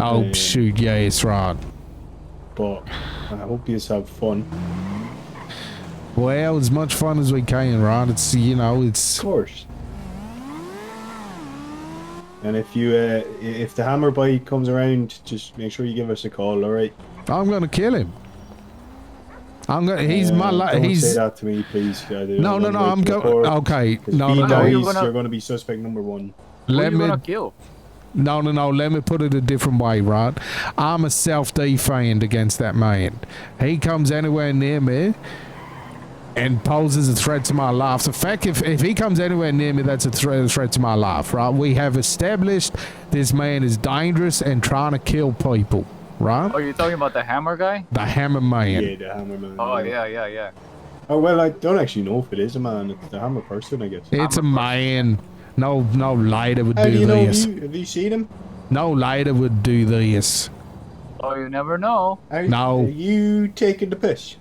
Oh, Yeah. shoot. Yeah, it's right. But I hope you have fun. Well, as much fun as we can, right? It's, you know, Of it's. course. And if you uh, i- if the hammer bite comes around, just make sure you give us a call. All right. I'm going to kill him. I'm going to. He's my. Um, Li- don't he's. say that to me, please. I do- No, I'm no, on no. the way I'm to the going. court. Okay. 'Cause No, if he no. dies, Who no. you you're gonna- going to be suspect number one. Let Let Who you me. gonna kill? No, no, no. Let me put it a different way, right? I'm a self defend against that man. He comes anywhere near me and poses a threat to my life. The fact if, if he comes anywhere near me, that's a threat, a threat to my life, right? We have established this man is dangerous and trying to kill people, right? Oh, you talking about the hammer guy? The hammer man. Yeah, the hammer man. Oh yeah, yeah, yeah. Oh well, I don't actually know if it is a man. It's the hammer person, I guess. It's a man. No, no lighter would How do do you know? Have this. you, have you seen him? No lighter would do this. Oh, you never know. How, No. Are you taking the piss?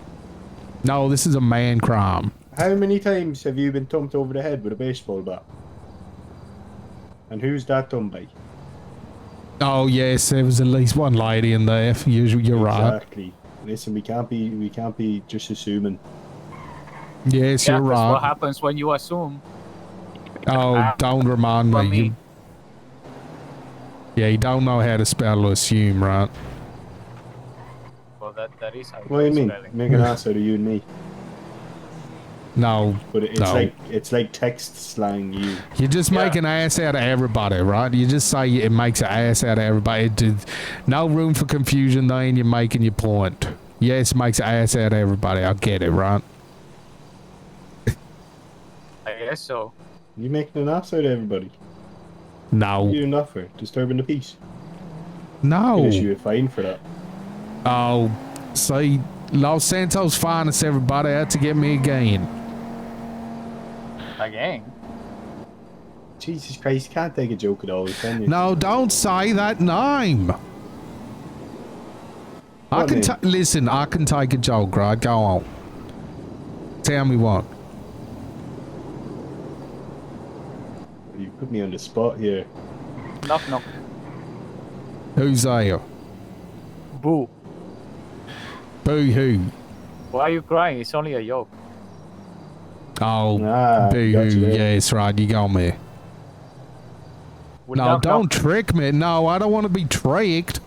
No, this is a man crime. How many times have you been thumped over the head with a baseball bat? And who's that done by? Oh yes, there was at least one lady in there. Usually, you're right. Exactly. Listen, we can't be we can't be just assuming. Yes, Yeah, you're that's what right. happens when you assume. Oh, don't remind For me. me. You, yeah, you don't know how to spell or assume, right? Well, that that is how What do you mean? spelling. Make an ass out of you and me. No, But it's No. like it's like text slang. You you just make Yeah. an ass out of everybody, right? You just say it makes an ass out of everybody. It did, no room for confusion. Then you're making your point. Yes, makes an ass out of everybody. I get it, right? I guess so. you making an ass out of everybody. No, You doing that for disturbing the peace. no. Could issue a fine for that. Oh, see, Los Santos finest everybody out to get me again. Again. Jesus Christ, you can't take a joke at all, can you? No, don't say that name. I What can name? ta- listen. I can take a joke, right? Go on. Tell me what. You put me on the spot here. Knock knock. Who's there? Boo. Boo hoo. Why are you crying? It's only a joke. Oh, Ah, boo got hoo. you there. Yes, right. You got me. Well, No, knock, knock. don't trick me. No, I don't want to be tricked.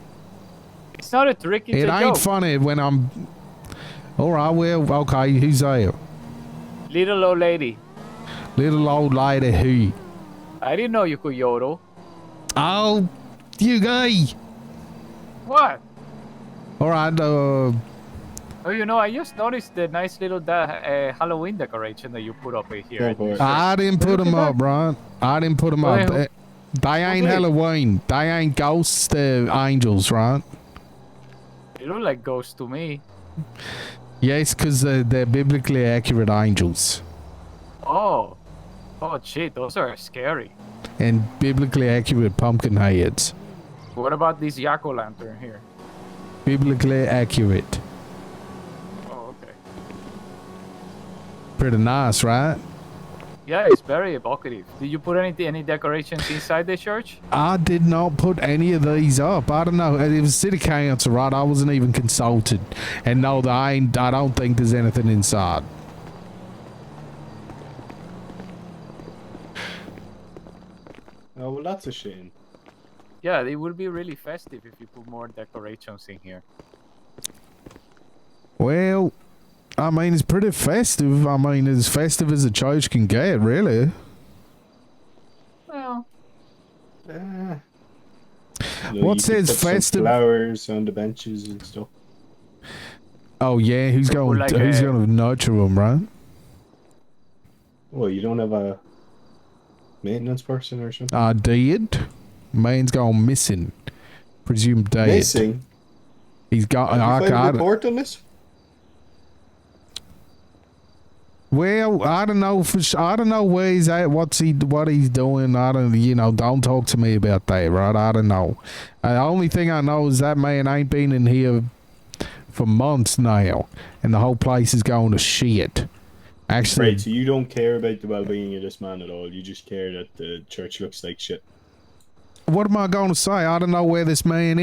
It's not a trick. It's it a ain't joke. funny when I'm. All right. Well, okay. Who's there? Little old lady. Little old lady who? I didn't know you could yodel. Oh, you guy. What? All right. Uh, Oh, you know, I just noticed the nice little da- uh, Halloween decoration that you put up Go here. for it. I didn't put Look at them up, that. right? I didn't put them up. Well, They, they ain't okay. Halloween. They ain't ghosts. They're angels, right? oh. It looked like ghosts to me. Yes, because they're, they're biblically accurate angels. Oh. Oh, shit. Those are scary. And biblically accurate pumpkin heads. What about this yak o' lantern here? Biblically accurate. Oh, okay. Pretty nice, right? Yeah, it's very evocative. Did you put any any decorations inside the church? I did not put any of these up. I don't know. It was city council, right? I wasn't even consulted. And no, I ain't. I don't think there's anything inside. Oh well, that's a shame. Yeah, it would be really festive if you put more decorations in here. Well, I mean, it's pretty festive. I mean, as festive as a church can get, really. Well, Ah. What could says put some festive- Flowers on the benches and stuff. Oh yeah, who's Or going? like who's a- going to nurture him, right? Well, you don't have a maintenance person or something. I did. Uh, Man's gone missing. Presumed dead. Missing. He's got. Did you I, find I, a report on this? well, I don't know for. su- I don't know where he's at. What's he? What he's doing? I don't. You know. Don't talk to me about that, right? I don't know. Uh, the only thing I know is that man ain't been in here for months now, and the whole place is going to shit. Actually, Right, so you don't care about the well-being of this man at all. You just care that the church looks like shit. what am I going to say? I don't know where this man